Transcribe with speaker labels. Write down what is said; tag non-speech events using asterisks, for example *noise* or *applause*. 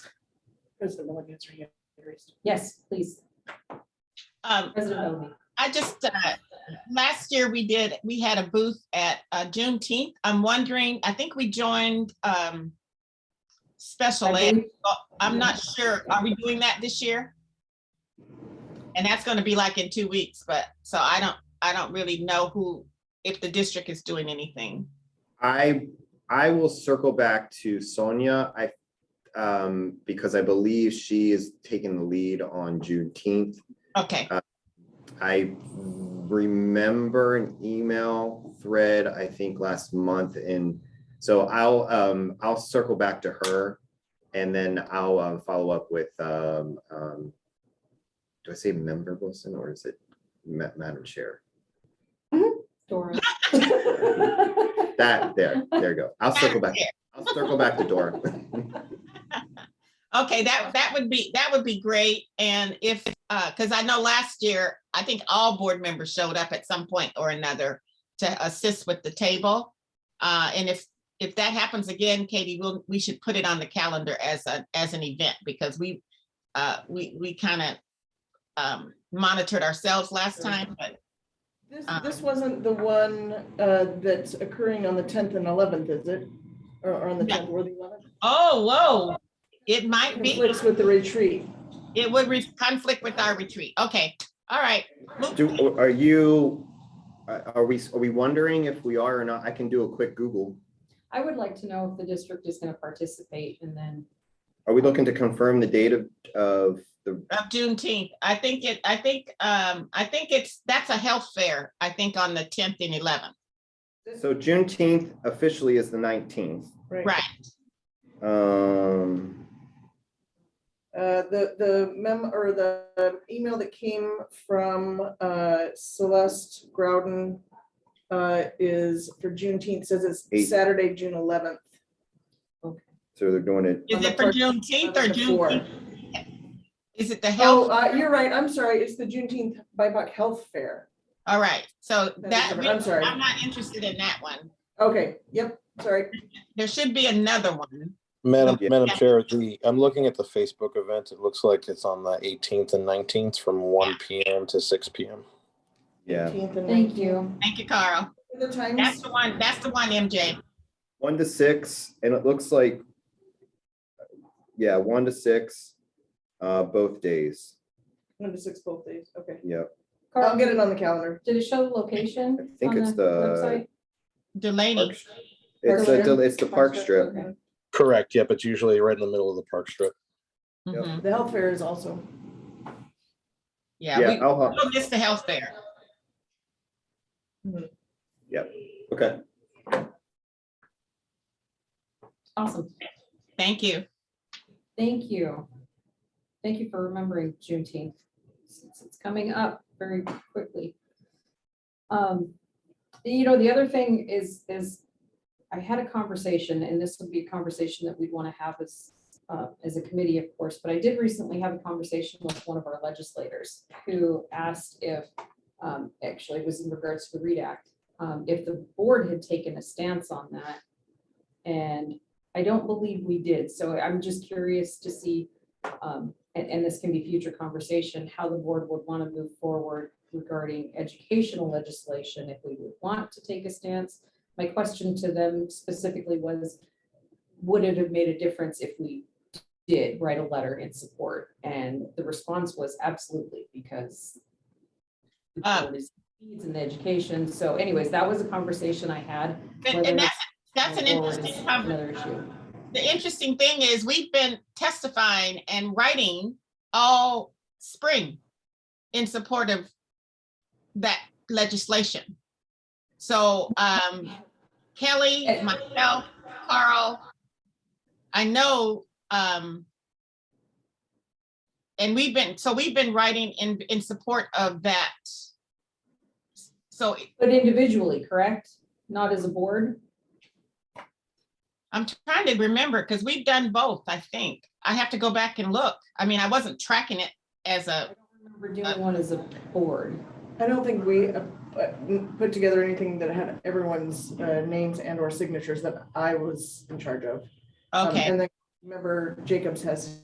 Speaker 1: President Milligan's hand raised.
Speaker 2: Yes, please,
Speaker 3: Um,
Speaker 2: President Bellamy.
Speaker 3: I just, uh, last year we did, we had a booth at uh, Juneteenth. I'm wondering, I think we joined um, special
Speaker 2: I
Speaker 3: ed.
Speaker 2: believe-
Speaker 3: I'm not sure. Are we doing that this year? And that's going to be like in two weeks, but so I don't, I don't really know who, if the district is doing anything.
Speaker 4: I, I will circle back to Sonia, I, um, because I believe she is taking the lead on Juneteenth.
Speaker 3: Okay,
Speaker 4: I remember an email thread, I think last month, and so I'll, um, I'll circle back to her. And then I'll, um, follow up with, um, um, do I say member Wilson or is it ma- Madam Chair?
Speaker 2: Dora.
Speaker 4: That, there, there you go. I'll circle back. I'll circle back to Dora.
Speaker 3: okay, that, that would be, that would be great. And if, because I know last year, I think all board members showed up at some point or another to assist with the table. Uh, And if, if that happens again, Katie, we'll, we should put it on the calendar as a, as an event because we, uh, we, we kind of um monitored ourselves last time, but
Speaker 1: This,
Speaker 3: Um,
Speaker 1: this wasn't the one uh, that's occurring on the 10th and 11th, is it? Or or on the
Speaker 3: No.
Speaker 1: 10th or the 11th?
Speaker 3: Oh, whoa. It might be,
Speaker 1: Conflicts with the retreat.
Speaker 3: it would re- conflict with our retreat. Okay, all right.
Speaker 4: Do, are you, are are we, are we wondering if we are or not? I can do a quick Google.
Speaker 2: *laughs* I would like to know if the district is gonna participate and then,
Speaker 4: Are we looking to confirm the date of, of the,
Speaker 3: Of Juneteenth, I think it, I think, um, I think it's, that's a health fair, I think on the tenth and eleventh.
Speaker 4: so Juneteenth officially is the nineteenth.
Speaker 3: Right,
Speaker 4: Um,
Speaker 1: Uh, The, the mem, or the email that came from uh, Celeste Groudon uh, is for Juneteenth, says
Speaker 4: Eight.
Speaker 1: it's Saturday, June 11th.
Speaker 4: so they're doing it,
Speaker 3: is
Speaker 1: On the
Speaker 3: it for
Speaker 1: first-
Speaker 3: Juneteenth or
Speaker 1: on the
Speaker 3: June?
Speaker 1: fourth.
Speaker 3: Is it the
Speaker 1: Oh,
Speaker 3: health?
Speaker 1: uh, you're right, I'm sorry, it's the Juneteenth BIPOC Health Fair.
Speaker 3: All right, so
Speaker 1: is
Speaker 3: that,
Speaker 1: different. I'm sorry.
Speaker 3: I'm not interested in that one.
Speaker 1: Okay, yep, sorry.
Speaker 3: There should be another one.
Speaker 5: Madam,
Speaker 4: Yeah.
Speaker 5: Madam Chair, the, I'm looking at the Facebook event. It looks like it's on the eighteenth and nineteenth from one PM to six PM.
Speaker 4: yeah,
Speaker 1: 18th and
Speaker 2: thank
Speaker 1: 19th.
Speaker 2: you.
Speaker 3: Thank you, Carl.
Speaker 1: The times?
Speaker 3: That's the one, that's the one, MJ.
Speaker 4: one to six, and it looks like, yeah, one to six, uh, both days.
Speaker 1: One to six both days, okay.
Speaker 4: Yep.
Speaker 1: I'll
Speaker 2: Carl,
Speaker 1: get it on the calendar.
Speaker 2: did it show the location?
Speaker 4: I think
Speaker 2: on
Speaker 4: it's the-
Speaker 2: website?
Speaker 3: Delaney.
Speaker 4: Park- It's, a- it's the park strip.
Speaker 2: Okay.
Speaker 5: Correct, yep, it's usually right in the middle of the park strip.
Speaker 4: Yep.
Speaker 3: Mhm.
Speaker 1: The health fair is also.
Speaker 3: Yeah,
Speaker 4: Yeah,
Speaker 3: we,
Speaker 4: I'll, hop-
Speaker 3: we'll miss the health fair.
Speaker 4: okay.
Speaker 2: Awesome,
Speaker 3: Thank you.
Speaker 2: thank you. Thank you for remembering Juneteenth, since it's coming up very quickly. Um, you know, the other thing is, is I had a conversation, and this would be a conversation that we'd want to have as, uh, as a committee, of course, but I did recently have a conversation with one of our legislators who asked if, um, actually it was in regards to the READ Act, um, if the board had taken a stance on that. And I don't believe we did, so I'm just curious to see, um, and, and this can be future conversation, how the board would want to move forward regarding educational legislation, if we would want to take a stance my question to them specifically was, would it have made a difference if we did write a letter in support? And the response was absolutely, because the
Speaker 3: Uh.
Speaker 2: board is needs in the education. So anyways, that was a conversation I had.
Speaker 3: And-
Speaker 2: whether
Speaker 3: And that's, that's an
Speaker 2: it's- or it's
Speaker 3: interesting conversation.
Speaker 2: Another issue.
Speaker 3: the interesting thing is we've been testifying and writing all spring in support of that legislation. So um, Kelly,
Speaker 2: And-
Speaker 3: myself, Carl, I know, um, and we've been, so we've been writing in, in support of that. So
Speaker 2: But individually, correct? Not as a board?
Speaker 3: I'm trying to remember because we've done both, I think. I have to go back and look. I mean, I wasn't tracking it as
Speaker 2: I
Speaker 3: a,
Speaker 2: don't remember
Speaker 3: Uh,
Speaker 2: doing one as a board.
Speaker 1: I don't think we uh, uh, put together anything that had everyone's uh, names and or signatures that I was in charge of. Um,
Speaker 3: okay,
Speaker 1: And then remember Jacobs has